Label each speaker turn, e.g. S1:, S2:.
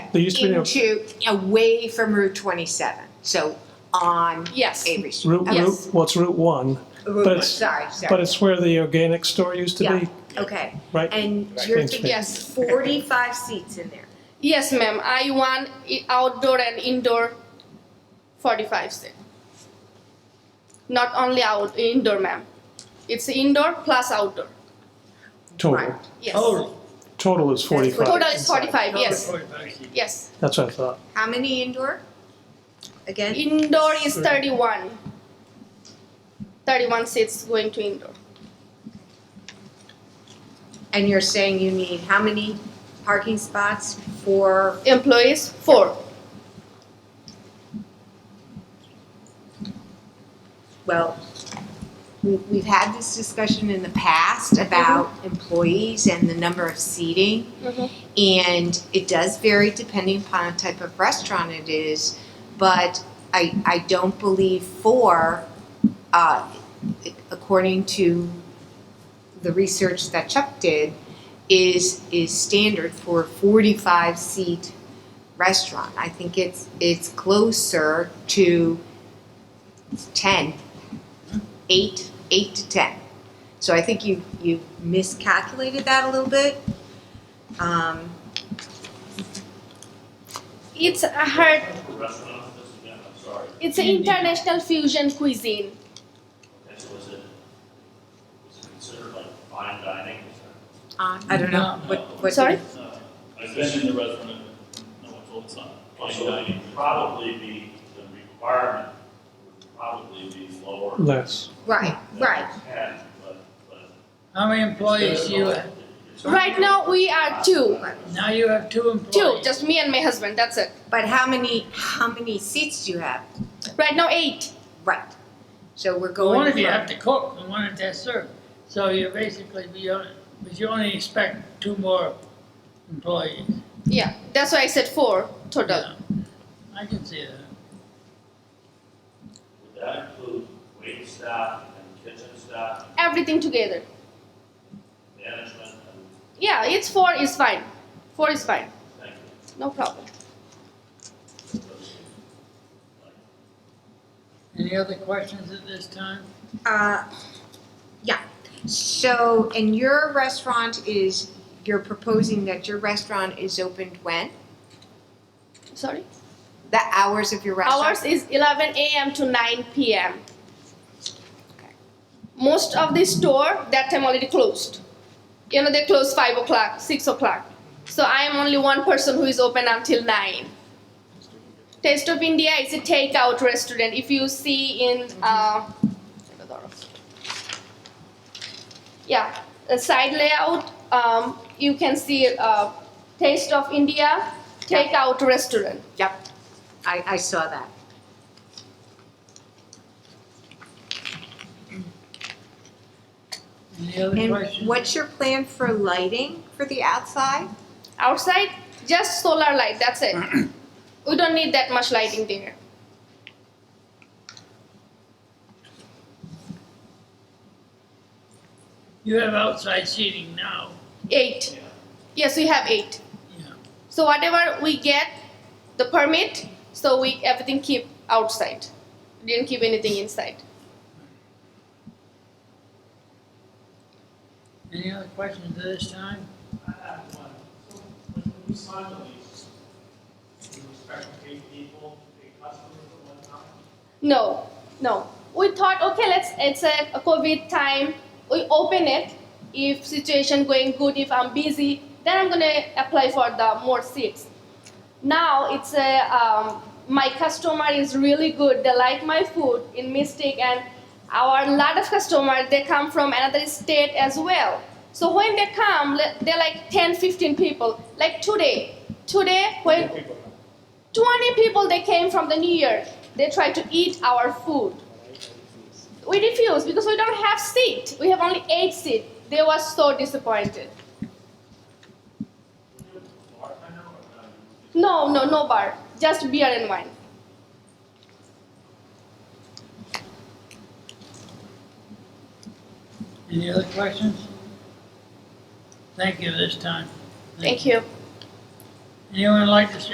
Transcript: S1: They used to be, a-
S2: into, away from Route 27, so on
S3: Yes.
S2: Avery Street.
S1: Route,
S2: Okay.
S3: Yes.
S1: Route, what's Route One?
S2: Route
S1: but
S2: one,
S1: it's-
S2: Sorry, sorry.
S1: But it's where the organic store used to be,
S2: Yeah, okay.
S1: right?
S2: And
S1: Right.
S2: you're
S1: Thanks,
S2: thinking
S3: ma'am. Yes.
S2: 45 seats in there.
S3: Yes, ma'am. I want i- outdoor and indoor 45 seat. Not only out indoor, ma'am. It's indoor plus outdoor.
S2: Right.
S1: Total,
S3: Yes.
S4: Total.
S1: total is forty-five.
S3: Total is 45. Yes.
S4: Total forty-five.
S3: Yes.
S1: That's what I thought.
S2: How many indoor? Again?
S3: Indoor is 31. 31 seats going to indoor.
S2: And you're saying you need how many parking spots for,
S3: Employees four.
S2: well, we- we've had this discussion in the past about employees and the number of seating. And it does vary depending upon the type of restaurant it is, but I, I don't believe four, uh, according to the research that Chuck did, is, is standard for a forty-five seat restaurant. I think it's, it's closer to ten, eight, eight to ten. So I think you, you miscalculated that a little bit. Um,
S3: It's a hard.
S5: restaurant, this again, I'm sorry,
S3: It's an international fusion cuisine.
S5: and so is it, is it considered like fine dining? Is that-
S4: Um,
S2: I don't know, what, what.
S3: Sorry?
S5: uh,
S6: I've been in the restaurant, and no one told us not.
S5: So it would probably be, the requirement would probably be lower. than
S1: Less.
S2: Right, right.
S5: Ten, but, but.
S4: How many employees you have?
S3: Right now we are two.
S4: Now you have two employees.
S3: Two, just me and my husband. That's it.
S2: But how many, how many seats do you have?
S3: Right now eight.
S2: Right. So we're going.
S4: One of you
S2: from-
S4: have to cook and one of that serve. So you basically, be on- but you only expect two more employees.
S3: Yeah, that's why I said four total.
S4: Yeah, I can see that.
S5: Would that include wait staff and kitchen staff,
S3: Everything together.
S5: management, and
S3: Yeah, it's four is fine. Four is fine.
S5: thank you.
S3: No problem.
S4: Any other questions at this time?
S2: Uh, yeah. So, and your restaurant is, you're proposing that your restaurant is opened when?
S3: Sorry.
S2: The hours of your restaurant?
S3: Ours is 11 a.m. to 9 p.m. Most of the store that time already closed. You know they close five o'clock, six o'clock. So I am only one person who is open until nine. Taste of India is a takeout restaurant. If you see in uh, yeah, the side layout, um, you can see uh, Taste of India takeout restaurant.
S2: Yep. I, I saw that.
S4: Any other
S2: And
S4: questions?
S2: what's your plan for lighting for the outside?
S3: outside just solar light that's it we don't need that much lighting there
S4: You have outside seating now.
S3: eight yes we have eight
S4: Yeah.
S3: so whatever we get the permit so we everything keep outside didn't keep anything inside
S4: Any other questions at this time?
S7: I have one. So, when we sign the lease, we respect eight people, eight customers at one time.
S3: no no we thought okay let's it's a, a covid time we open it if situation going good if i'm busy then i'm gonna apply for the more seats now it's a um, my customer is really good they like my food in mystic and our lot of customers they come from another state as well so when they come le- they're like 10 15 people like today today when 20 people they came from the new year they tried to eat our food we refused because we don't have seat we have only eight seat they were so disappointed
S5: Bartender or not?
S3: no no no bar just beer and wine
S4: Any other questions? Thank you this time.
S3: Thank you.
S4: Anyone like to say